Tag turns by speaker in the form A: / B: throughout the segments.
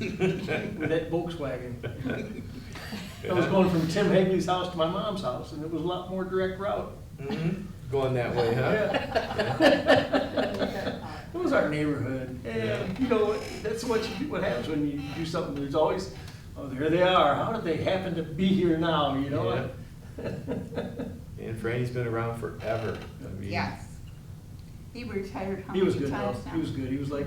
A: with that Volkswagen. I was going from Tim Hagley's house to my mom's house, and it was a lot more direct route.
B: Mhm. Going that way, huh?
C: uh,
A: Yeah. It was our neighborhood, and, you know, that's what you, what happens when you do something, there's always, oh, there they are, how did they happen to be here now, you know?
B: And Franny's been around forever. I mean,
C: Yes. He retired how
A: He was
C: many
A: good, though.
C: times now?
A: he was good, he was like,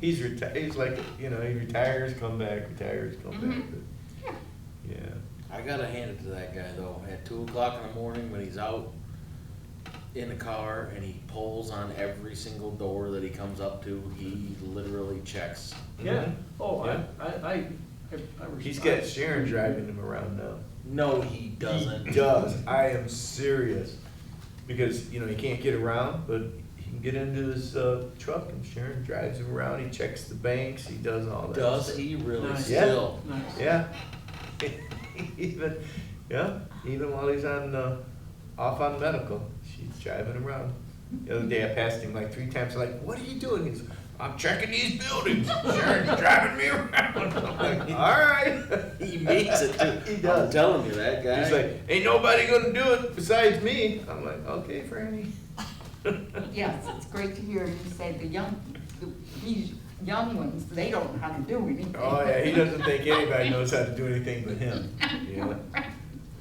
B: He's retired, he's like, you know, he retires, come back, retires, come back.
C: Mhm.
B: but-
C: Yeah.
B: Yeah.
D: I gotta hand it to that guy though, at two o'clock in the morning when he's out in the car and he pulls on every single door that he comes up to, he literally checks.
A: yeah,
B: Mhm.
A: oh, I,
B: Yeah.
A: I, I, I- I. was-
B: He's got Sharon driving him around now.
D: No, he doesn't.
B: He does. I am serious. Because, you know, he can't get around, but he can get into his uh, truck and Sharon drives him around. He checks the banks. He does all that.
D: Does he really
A: Nice.
B: Yeah.
D: still?
A: Nice.
B: Yeah. even, yeah, even while he's on, uh, off on medical, she's driving him around. The other day I passed him like three times, like, what are you doing? He's, I'm checking these buildings. Sharon's driving me around. I'm like, all right.
D: He makes it too.
B: He does.
D: I'm telling you, that guy.
B: He's like, ain't nobody gonna do it besides me. I'm like, okay, Franny.
C: Yes, it's great to hear you say the young, the- these young ones, they don't know how to do anything.
B: Oh yeah, he doesn't think anybody knows how to do anything but him. Yeah.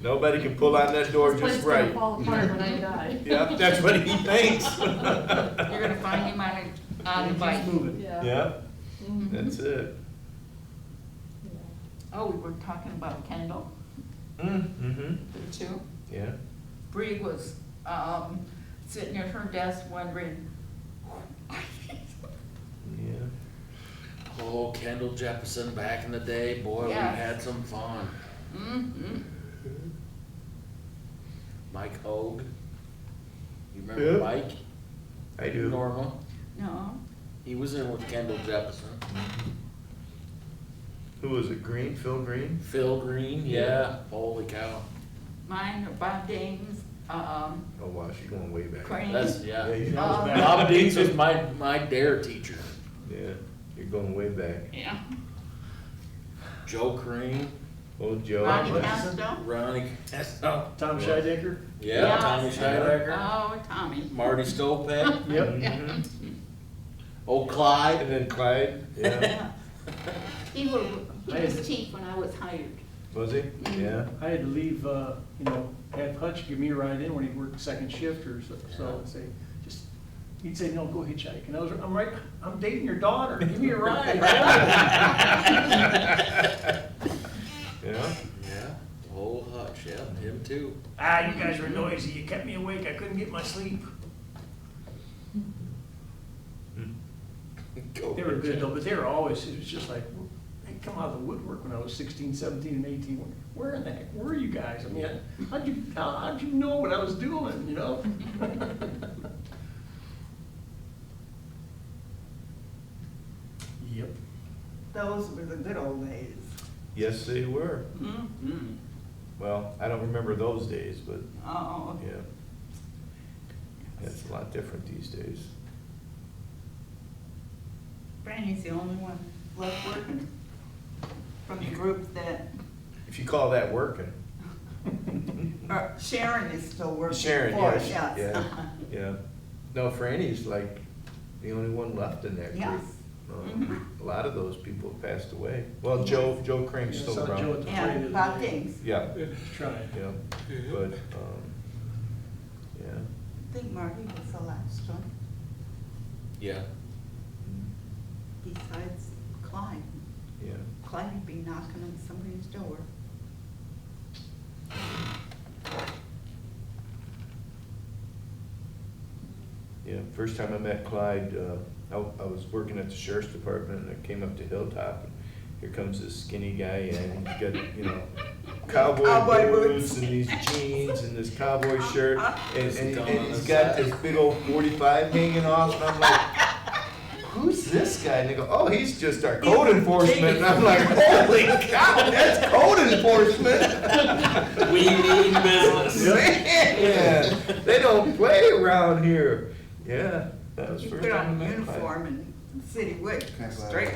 B: Nobody can pull on that door just right.
E: fall apart when I die.
B: Yeah, that's what he thinks.
C: You're gonna find him on a, on a
A: He's
C: bike.
A: moving.
B: Yeah,
C: Mhm.
E: Mm-hmm.
B: that's it.
C: Oh, we were talking about Kendall,
B: Mm-hmm.
C: too.
B: Yeah.
C: Bree was, um, sitting at her desk wondering,
B: Yeah.
D: Oh, Kendall Jefferson back in the day, boy, we
C: Yes.
D: had some fun.
C: mm-hmm.
D: Mike Hoag. You remember
B: Yeah.
D: Mike?
B: I do.
D: Norma.
C: No,
D: He was in with Kendall Jefferson.
B: Who was it? Green? Phil Green?
D: Phil Green, yeah. Holy cow.
C: mine are Bob Dane's, um,
B: Oh wow, she's going way back.
C: Crane.
D: That's,
B: Yeah,
D: yeah.
B: you-
E: Uh-huh.
A: That was
C: Um,
A: bad.
D: Bob Deans was my, my dare teacher.
B: yeah, you're going way back.
C: Yeah.
D: Joe Crane,
B: Old Joe.
C: Ronnie
A: What's his
C: Castro.
D: Ronnie Castle.
A: Tom Scheidecker?
D: Yeah,
C: Yes.
D: Tommy Scheidecker.
C: Oh, Tommy.
D: Marty Stopak.
A: Yep.
B: Mhm.
D: Oh, Clyde.
B: And then Clyde, yeah,
C: He was, he
A: Nice.
C: was chief when I was hired.
B: was he?
E: Mm-hmm.
B: Yeah.
A: I had to leave, uh, you know, have Hutch give me a ride in when he worked second shift or so, so I'd say, just, he'd say, no, go hitchhike, and I was, I'm right, I'm dating your daughter, give me a ride.
B: Yeah.
D: Yeah. Oh, Hutch, yeah, him too.
A: Ah, you guys were noisy, you kept me awake, I couldn't get my sleep.
B: Go
A: They were
B: Jim.
A: good though, but they were always, it was just like, they come out of the woodwork when I was sixteen, seventeen, and eighteen, where in the heck were you guys? I mean, how'd you, how- how'd you know what I was doing, you know? Yep.
E: Those were the good old days.
B: Yes, they were.
C: Mm-hmm.
B: Well, I don't remember those days, but
C: Oh,
B: yeah. It's a lot different these days.
C: Brandy's the only one left working from the group that,
B: If you call that working.
E: Uh, Sharon is still working
B: Sharon,
E: for us,
B: yes,
E: yes.
B: yeah, yeah. No, Franny's like the only one left in that group.
C: yes.
B: Um, A lot of those people have passed away. Well, Joe, Joe Crane's
A: Yeah, I
B: still
A: saw Joe at
B: around.
A: the parade the
C: And
A: other
C: Bob
A: day.
C: Dings.
B: Yeah,
A: Yeah, Trying.
B: yeah, but, um, yeah.
E: I think Marty was the last one,
D: Yeah.
E: besides Clyde.
B: Yeah,
E: Clyde would be knocking on somebody's door.
B: yeah. First time I met Clyde, uh, I, I was working at the sheriff's department and I came up to Hilltop. and Here comes this skinny guy and he's got, you know, cowboy
E: Cowboy
B: boots
E: boots.
B: and these jeans and this cowboy shirt. And, and and he's
D: His
B: got
D: gun.
B: this big old forty-five hanging off and I'm like, who's this guy? And they go, oh, he's just our code enforcement. And I'm like, holy cow, that's code enforcement.
D: We mean business.
B: Man, they don't play around here. Yeah, that was
E: He
B: first
E: put
B: time
E: on
B: I
E: a
B: met Clyde.
E: uniform and city wig, straight